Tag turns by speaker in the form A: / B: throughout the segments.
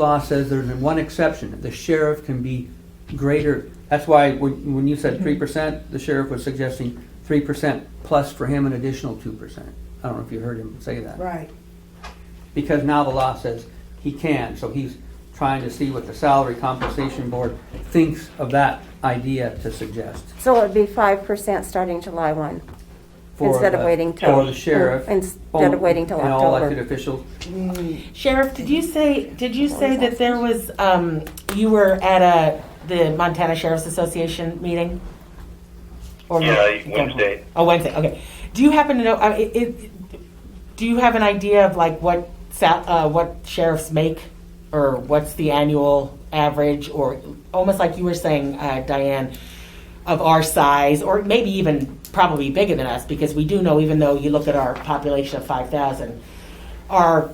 A: law says there's one exception, the sheriff can be greater, that's why when, when you said
B: Mm-hmm.
A: three percent, the sheriff was suggesting three percent plus for him an additional two percent. I don't know if you heard him say that.
C: Right,
A: Because now the law says he can, so he's trying to see what the salary compensation board thinks of that idea to suggest.
B: So it would be five percent starting July one,
A: for
B: instead of
A: the-
B: waiting till. Mm,
A: For the sheriff. Oh,
B: Instead of waiting till
A: And all elected
B: October.
A: officials,
D: Sheriff, did you say, did you say that there was, um, you were at a, the Montana Sheriff's Association meeting? Or
E: Yeah,
D: not?
E: Wednesday.
D: Oh, Wednesday, okay. Do you happen to know, I, it, it- do you have an idea of like what sal, uh, what sheriffs make? Or what's the annual average, or almost like you were saying, uh, Diane, of our size, or maybe even probably bigger than us, because we do know, even though you look at our population of five thousand, our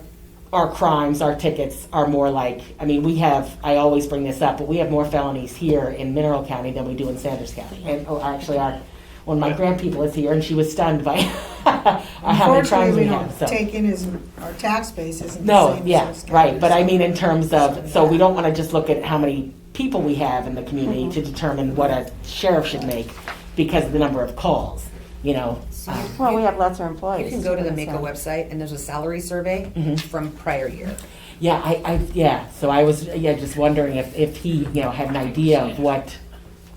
D: our crimes, our tickets are more like, I mean, we have, I always bring this up, but we have more felonies here in Mineral County than we do in Sanders County. And, oh, actually, our, one of my grandpeople is here and she was stunned by how many crimes
C: unfortunately,
D: we
C: we
D: have,
C: don't
D: so.
C: take in as, our tax base isn't the
D: No,
C: same. as
D: yeah,
C: those
D: right, but I
C: counties.
D: mean in terms of, so we don't wanna just look at how many people we have in the community to determine what a sheriff should make because of the number of calls, you know? Um,
B: Well, we have lots of
F: You
B: employees.
F: can go to the
B: so-
F: Mako website and there's a salary survey from prior year.
D: Yeah, I, I, yeah, so I was, yeah, just wondering if, if he, you know, had an idea of what,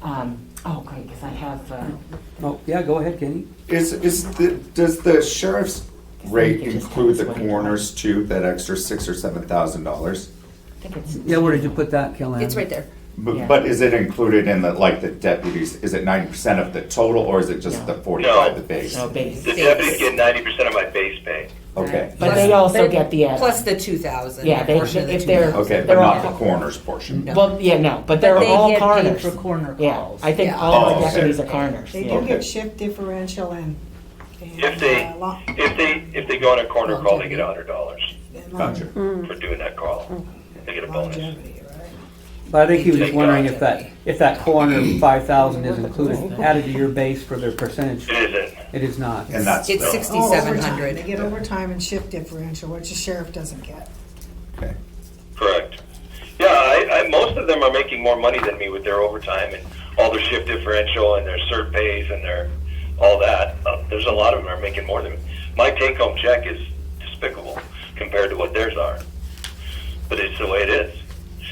D: um, oh, great, because I have, uh,
A: oh, yeah, go ahead, Kenny.
G: Is, is, the- does the sheriff's rate
D: Guess we could just
G: include the
D: have this one.
G: coroners too, that extra six or seven thousand dollars?
D: I think it's.
A: Yeah, where did you put that, Kellan?
F: It's right there.
D: Yeah.
G: But, but is it included in the, like, the deputies, is it ninety percent of the total, or is it just
D: No.
G: the forty-five,
E: No.
G: the base?
D: No, base.
E: The deputies get ninety percent of my base pay.
G: Okay,
D: But
F: Plus-
D: they also
F: but-
D: get the, uh,
F: Plus the two thousand.
D: Yeah, they- if they're-
G: okay, but
D: They're all-
G: not the coroner's portion?
D: Well, yeah, no, but they're
H: But they
D: all
H: get paid
D: coroners.
H: for coroner
D: Yeah,
H: calls.
D: I think
F: Yeah.
D: all our
G: Oh, okay.
D: deputies are coroners.
C: They
D: yeah.
C: do get shift differential and. and,
E: If they,
C: uh, lo-
E: if they, if they go on a corner call, they get a hundred dollars
C: and
G: Gotcha.
E: for doing that call. They get a bonus.
C: Longevity, right?
A: But I think he was just wondering if that, if that corner five thousand is included, added to your base for their percentage.
E: It isn't.
A: It is not.
G: And that's,
F: It's
G: the-
C: Oh, overtime.
F: sixty-seven
C: They
F: hundred.
C: get overtime and shift differential, which the sheriff doesn't get.
G: okay,
E: Correct. Yeah, I, I, most of them are making more money than me with their overtime and all their shift differential and their cert pays and their all that. Uh, there's a lot of them are making more than me. My take home check is despicable compared to what theirs are, but it's the way it is.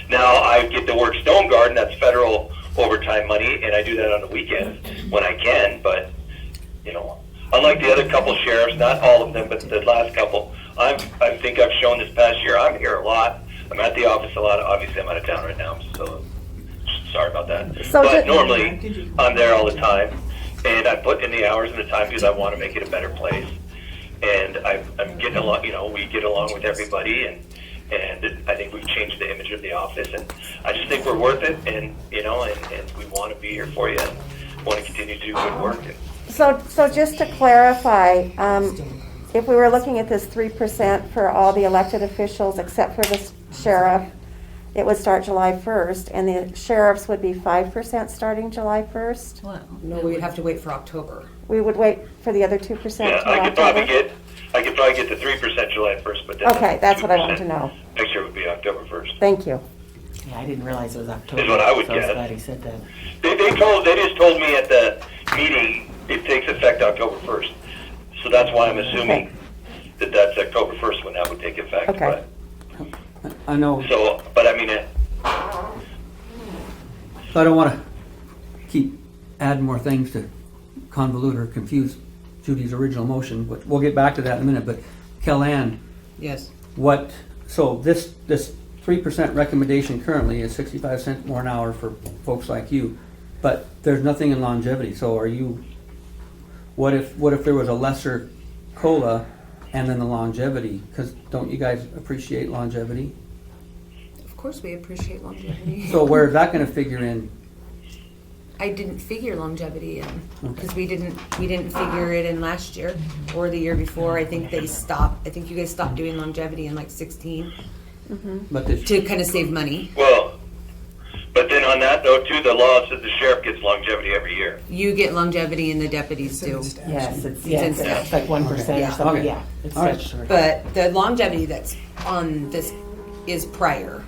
E: Now I get to work Stone Garden. That's federal overtime money, and I do that on the weekends when I can. But you know, unlike the other couple sheriffs, not all of them, but the last couple, I'm, I think I've shown this past year, I'm here a lot. I'm at the office a lot. Obviously, I'm out of town right now, so sorry about that.
B: So
E: but
B: did-
E: normally, I'm there all the time, and I put in the hours and the time because I want to make it a better place. And I, I'm getting along, you know, we get along with everybody, and and I think we've changed the image of the office, and I just think we're worth it, and you know, and, and we want to be here for you, and want to continue to do good work. And,
B: So, so just to clarify, um, if we were looking at this three percent for all the elected officials except for the sheriff, it would start July first, and the sheriffs would be five percent starting July first.
F: No, we'd have to wait for October.
B: We would wait for the other two percent
E: Yeah,
B: till
E: I could probably
B: October.
E: get, I could probably get the three percent July first, but then.
B: Okay, that's what I want to
E: 2%.
B: know.
E: Next year would be October first.
B: Thank you.
D: Yeah, I didn't realize it was October.
E: Is what I would
D: so was
E: guess.
D: glad he said that.
E: They, they told, they just told me at the meeting, it takes effect October first. So that's why I'm
B: Okay.
E: assuming that that's October first when that would take effect,
B: Okay.
E: but,
A: I know,
E: so, but I mean, it-
A: so I don't wanna keep adding more things to convolute or confuse Judy's original motion, but we'll get back to that in a minute, but Kellan,
F: Yes.
A: what, so this, this three percent recommendation currently is sixty-five cent more an hour for folks like you, but there's nothing in longevity, so are you, what if, what if there was a lesser COLA and then the longevity? Cause don't you guys appreciate longevity?
F: Of course, we appreciate longevity.
A: So where is that gonna figure in?
F: I didn't figure longevity in, because we didn't, we didn't figure it in last year or the year before. I think they stopped, I think you guys stopped doing longevity in like sixteen
A: But this,
F: to kind of save money.
E: well, but then on that though, too, the law says the sheriff gets longevity every year.
F: You get longevity and the deputies do.
D: Yes, it's, yeah,
F: in
D: it's
F: statute.
D: it's like one percent or
F: Yeah.
D: something,
A: Okay.
D: yeah. It's
A: All right.
D: statutory.
F: But the longevity that's on this is prior.